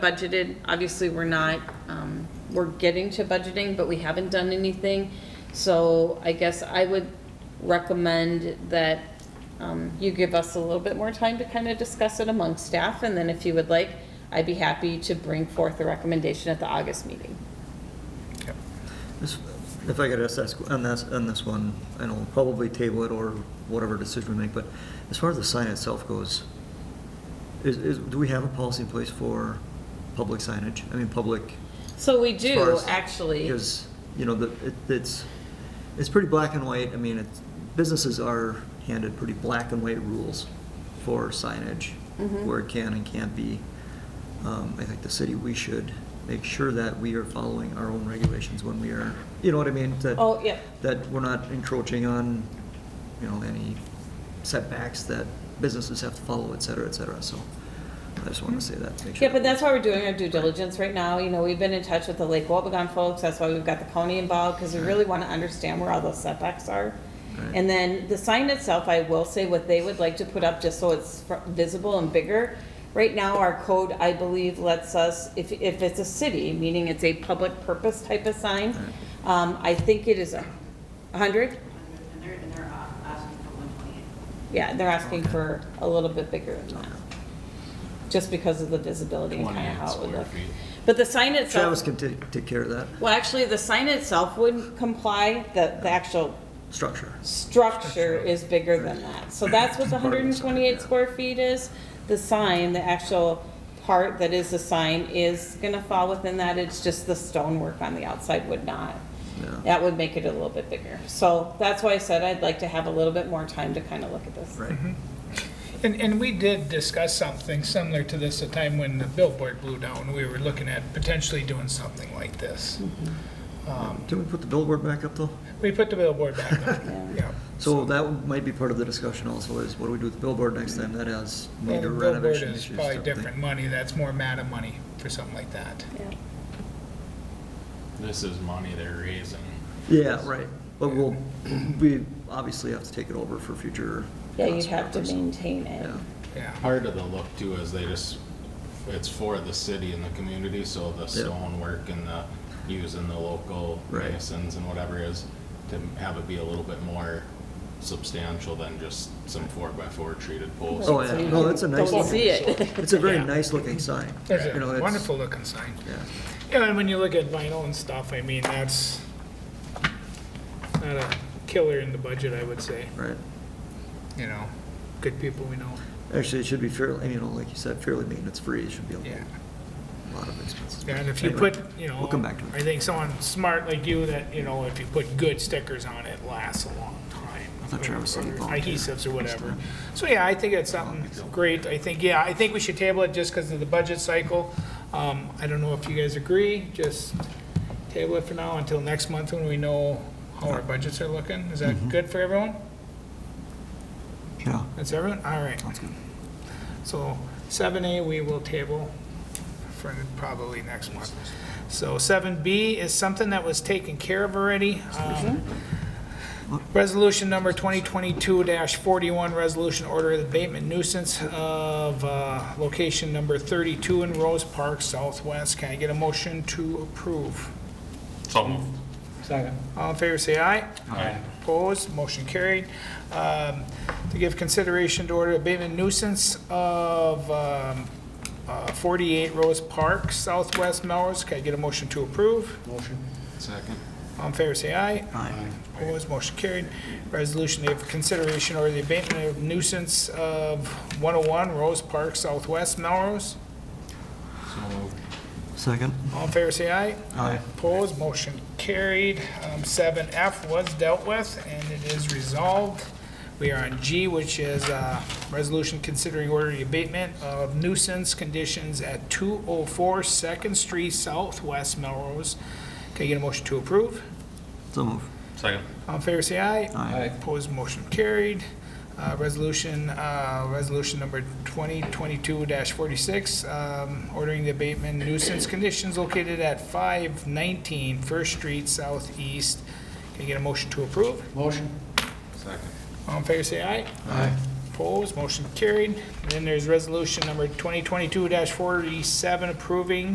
budgeted. Obviously, we're not, um, we're getting to budgeting, but we haven't done anything. So I guess I would recommend that um, you give us a little bit more time to kind of discuss it among staff. And then if you would like, I'd be happy to bring forth a recommendation at the August meeting. This- If I could just ask, on this, on this one, I know we'll probably table it or whatever decision we make, but as far as the sign itself goes, is, is, do we have a policy in place for public signage? I mean, public. So we as far do, as- actually. Because, you know, the, it, it's, it's pretty black and white. I mean, it's, businesses are handed pretty black and white rules for signage, Mhm. where it can and can't be. Um, I think the city, we should make sure that we are following our own regulations when we are, you know what I mean? That- Oh, yeah. That we're not encroaching on, you know, any setbacks that businesses have to follow, et cetera, et cetera, so I just want to say that, to make sure. Mm-hmm. Yeah, but that's why we're doing our due diligence right now. You know, we've been in touch with the Lake Wobegon folks. That's why we've got the county involved, because we really want to understand where all those setbacks are. Right. And then the sign itself, I will say what they would like to put up, just so it's fr- visible and bigger. Right now, our code, I believe, lets us, if, if it's a city, meaning it's a public purpose type of sign, um, I think it is a hundred. And they're, and they're uh, asking for one twenty-eight. Yeah, they're asking for a little bit bigger than that, just because of the visibility and kind of 28 how it would square look. feet. But the sign itself. Travis can take, take care of that Well, actually, the sign itself would comply, the, the actual structure. structure is bigger than that. So that's what the Part hundred of the and sign, twenty-eight yeah. square feet is. The sign, the actual part that is the sign is gonna fall within that. It's just the stonework on the outside would not. Yeah. That would make it a little bit bigger. So that's why I said I'd like to have a little bit more time to kind of look at this. Right. And, and we did discuss something similar to this the time when the billboard blew down. We were looking at potentially doing something like this. Um, Didn't we put the billboard back up though? We put the billboard back on, yeah. So that might be part of the discussion also is what do we do with the billboard next time that has Well, the major billboard renovation is issues? probably don't they? different money, that's more MATA money for something like that. Yeah. This is money they're raising. Yeah, right. But we'll, we obviously have to take it over for future. Yeah, you cost have to purposes. maintain it. Yeah, Yeah, Part of the look too is they just, it's for the city and the community, so the stonework and the, using the local Right. masons and whatever is, to have it be a little bit more substantial than just some four by four treated poles. Oh, yeah. No, that's a nice Don't looking- see it. It's a very Yeah. nice looking sign. there's You know, a it's- wonderful looking sign. Yeah, Yeah, and when you look at vinyl and stuff, I mean, that's not a killer in the budget, I would say, right. you know, good people we know, Actually, it should be fairly, you know, like you said, fairly maintenance free. It should be a yeah. lot of expenses. Yeah, and if you Anyway, put, you know. We'll come back to I it. think someone smart like you that, you know, if you put good stickers on it, lasts a long time. I thought Travis said Or volunteer. Adhesives or whatever. So, yeah, I think it's something great. I think, yeah, I think we should table it just because of the budget cycle. Um, I don't know if you guys agree, just table it for now until next month when we know how our budgets are looking. Is Mm-hmm. that good for everyone? Yeah, That's everyone? All right. that's good. So seven A, we will table for probably next month. So seven B is something that was taken care of already. Um, Resolution number twenty twenty-two forty-one, resolution order of abatement nuisance of, uh, location number thirty-two in Rose Park Southwest. Can I get a motion to approve? So moved. Second. All in favor, say aye. Aye. Opposed, motion carried. Um, To give consideration to order abatement nuisance of um, uh, 48 Rose Park, Southwest Melrose. Can I get a motion to approve? Second. All in favor, say aye. Aye. Opposed, motion carried. Resolution to give consideration or the abatement of nuisance of 101 Rose Park, Southwest Melrose. So moved. Second? All in favor, say aye. Aye. Opposed, motion carried. Um, Seven F was dealt with, and it is resolved. We are on G, which is uh resolution considering order of abatement of nuisance conditions at 204 Second Street Southwest Melrose. Can I get a motion to approve? So move. Second. All in favor, say aye. Aye. Opposed, motion carried. Uh, Resolution, uh, resolution number 2022-46, um, ordering the abatement nuisance conditions located at 519 First Street Southeast. Can I get a motion to approve? Second. All in favor, say aye. Aye. Opposed, motion carried. Then there's resolution number 2022-47, approving